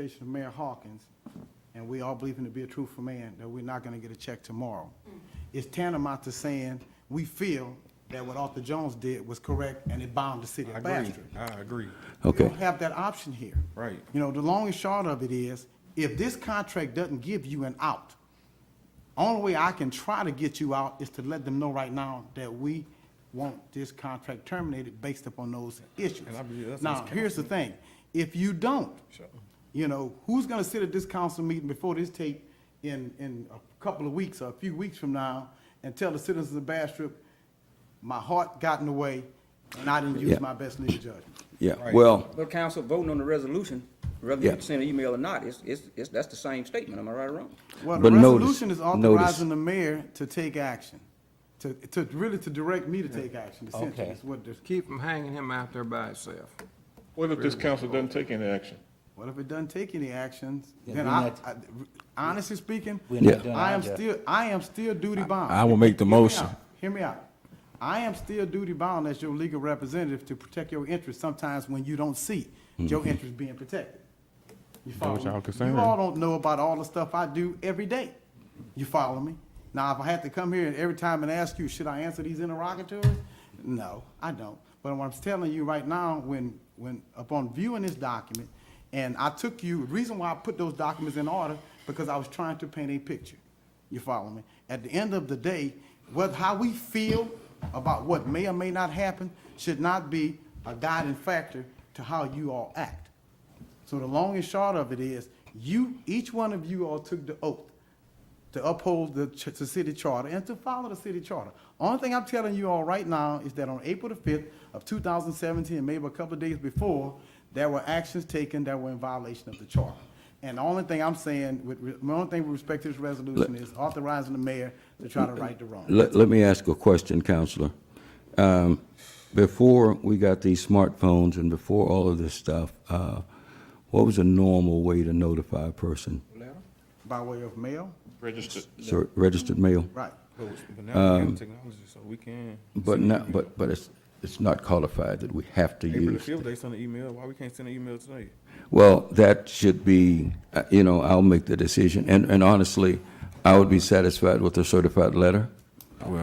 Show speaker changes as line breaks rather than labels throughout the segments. presentation of Mayor Hawkins, and we all believe him to be a truthful man, that we're not gonna get a check tomorrow. It's tantamount to saying, we feel that what Arthur Jones did was correct and it bound the city
I
of
agree,
Bastrop.
I agree.
We
Okay,
don't have that option here.
Right.
You know, the long and short of it is, if this contract doesn't give you an out, only way I can try to get you out is to let them know right now that we want this contract terminated based upon those issues.
And I believe that's
Now,
what's
here's the thing, if you don't,
Sure.
you know, who's gonna sit at this council meeting before this tape in, in a couple of weeks or a few weeks from now and tell the citizens of Bastrop, my heart got in the way and I didn't
Yeah.
use my best legal judgment?
yeah,
Right.
well,
But council voting on the resolution, whether
Yeah.
you send an email or not, it's, it's, it's, that's the same statement, am I right or wrong?
Well, the
But notice-
resolution is
notice-
authorizing the mayor to take action, to, to, really to direct me to take action, essentially,
Okay.
is what this,
Keep from hanging him out there by himself.
What if this council doesn't take any action?
what if it doesn't take any actions?
Yeah,
Then
we're
I,
not-
I- honestly speaking,
We're not
Yeah.
doing
I
our
am
job.
still, I am still duty bound.
Ah,
I will make the
Hear me
motion.
out. Hear me out. I am still duty bound as your legal representative to protect your interests sometimes when you don't see your interests being protected. You follow
what y'all
me?
concerned.
You all don't know about all the stuff I do every day. You follow me? Now, if I had to come here and every time and ask you, should I answer these interrogatories? No, I don't. But what I'm telling you right now, when, when, upon viewing this document, and I took you, the reason why I put those documents in order, because I was trying to paint a picture. You follow me? At the end of the day, what, how we feel about what may or may not happen should not be a guiding factor to how you all act. So the long and short of it is, you, each one of you all took the oath to uphold the, ch- the city charter and to follow the city charter. Only thing I'm telling you all right now is that on April the fifth of two thousand seventeen, maybe a couple of days before, there were actions taken that were in violation of the charter. And the only thing I'm saying with, re- my only thing with respect to this resolution is authorizing the mayor to try to right the wrong.
let, let me ask a question, Counselor. Um, Before we got these smartphones and before all of this stuff, uh, what was a normal way to notify a person?
By way of mail,
Registered.
So registered mail?
right.
But now we have technology, so we can.
But not, but, but it's, it's not qualified that we have to
April the
use.
fifth, they sent an email, why we can't send an email tonight?
Well, that should be, uh, you know, I'll make the decision. And, and honestly, I would be satisfied with a certified letter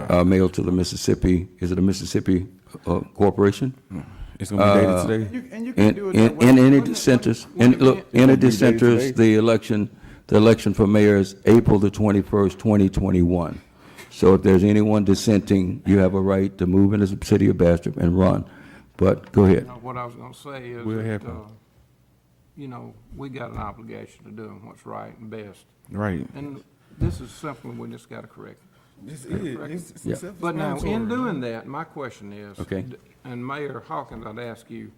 uh, mailed to the Mississippi, is it a Mississippi uh, corporation?
It's gonna be
Uh,
dated today.
You- And you can
And,
do it that
and
way.
and any
Wouldn't it-
dissenters, and look, any
Wouldn't it be dated
dissenters,
today?
the election, the election for mayor is April the twenty-first, twenty twenty-one. So if there's anyone dissenting, you have a right to move into the city of Bastrop and run. But go ahead.
Now, what I was gonna say is
Will
that,
happen.
uh, you know, we got an obligation to do what's right and best.
Right.
And this is something we just gotta correct.
This is, it's,
Yeah.
it's self
But now,
doing.
in doing that, my question is.
Okay.
d- And Mayor Hawkins, I'd ask you,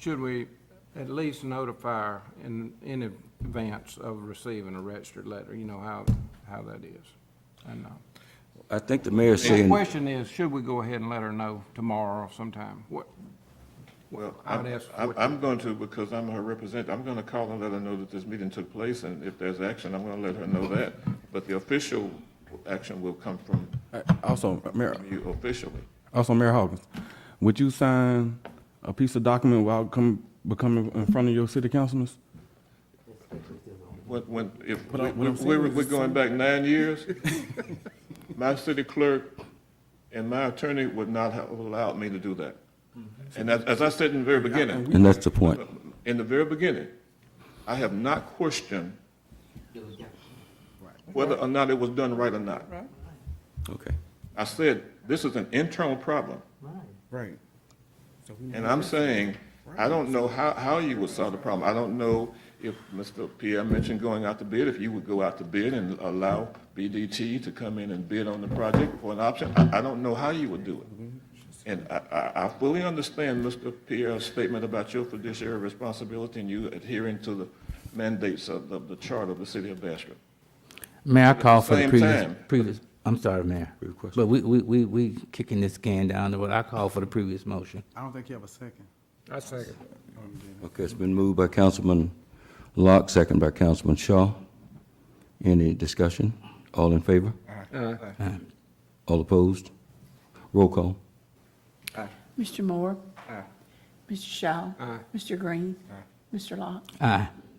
should we at least notify in, in advance of receiving a registered letter? You know how, how that is. And, uh,
I think the mayor's
the
saying,
question is, should we go ahead and let her know tomorrow or sometime? What,
Well,
I would
I'm,
ask
I'm-
what-
I'm going to, because I'm her representative, I'm going to call and let her know that this meeting took place, and if there's action, I'm going to let her know that. But the official action will come from
Also, Mayor,
you officially.
also Oh, Mayor Hawkins, would you sign a piece of document without come, becoming in front of your city councilmen?
When, when, if,
But I- what I'm saying
we're,
is
we're
it's
going back nine years, my city clerk and my attorney would not have allowed me to do that.
Mm-hmm.
And as, as I said in the very beginning,
and that's the point.
in the very beginning, I have not questioned whether or not it was done right or not.
Okay.
I said, this is an internal problem,
Right. So we
and I'm saying, I don't know how, how you would solve the problem. I don't know if Mr. Pierre mentioned going out to bid, if you would go out to bid and allow BDT to come in and bid on the project for an option. I, I don't know how you would do it. And I, I, I fully understand Mr. Pierre's statement about your fiduciary responsibility and you adhering to the mandates of, of the charter of the city of Bastrop.
Mayor, I call for the
same
previous,
time.
previous, I'm sorry, Mayor. But we, we, we, we kicking this can down the road. I call for the previous motion.
I don't think you have a second.
I second.
Okay, it's been moved by Councilman Locke, second by Councilman Shaw. Any discussion? All in favor? All opposed? Roll call.
Mr. Moore? Mr. Shaw? Mr. Green? Mr. Locke?
Aye.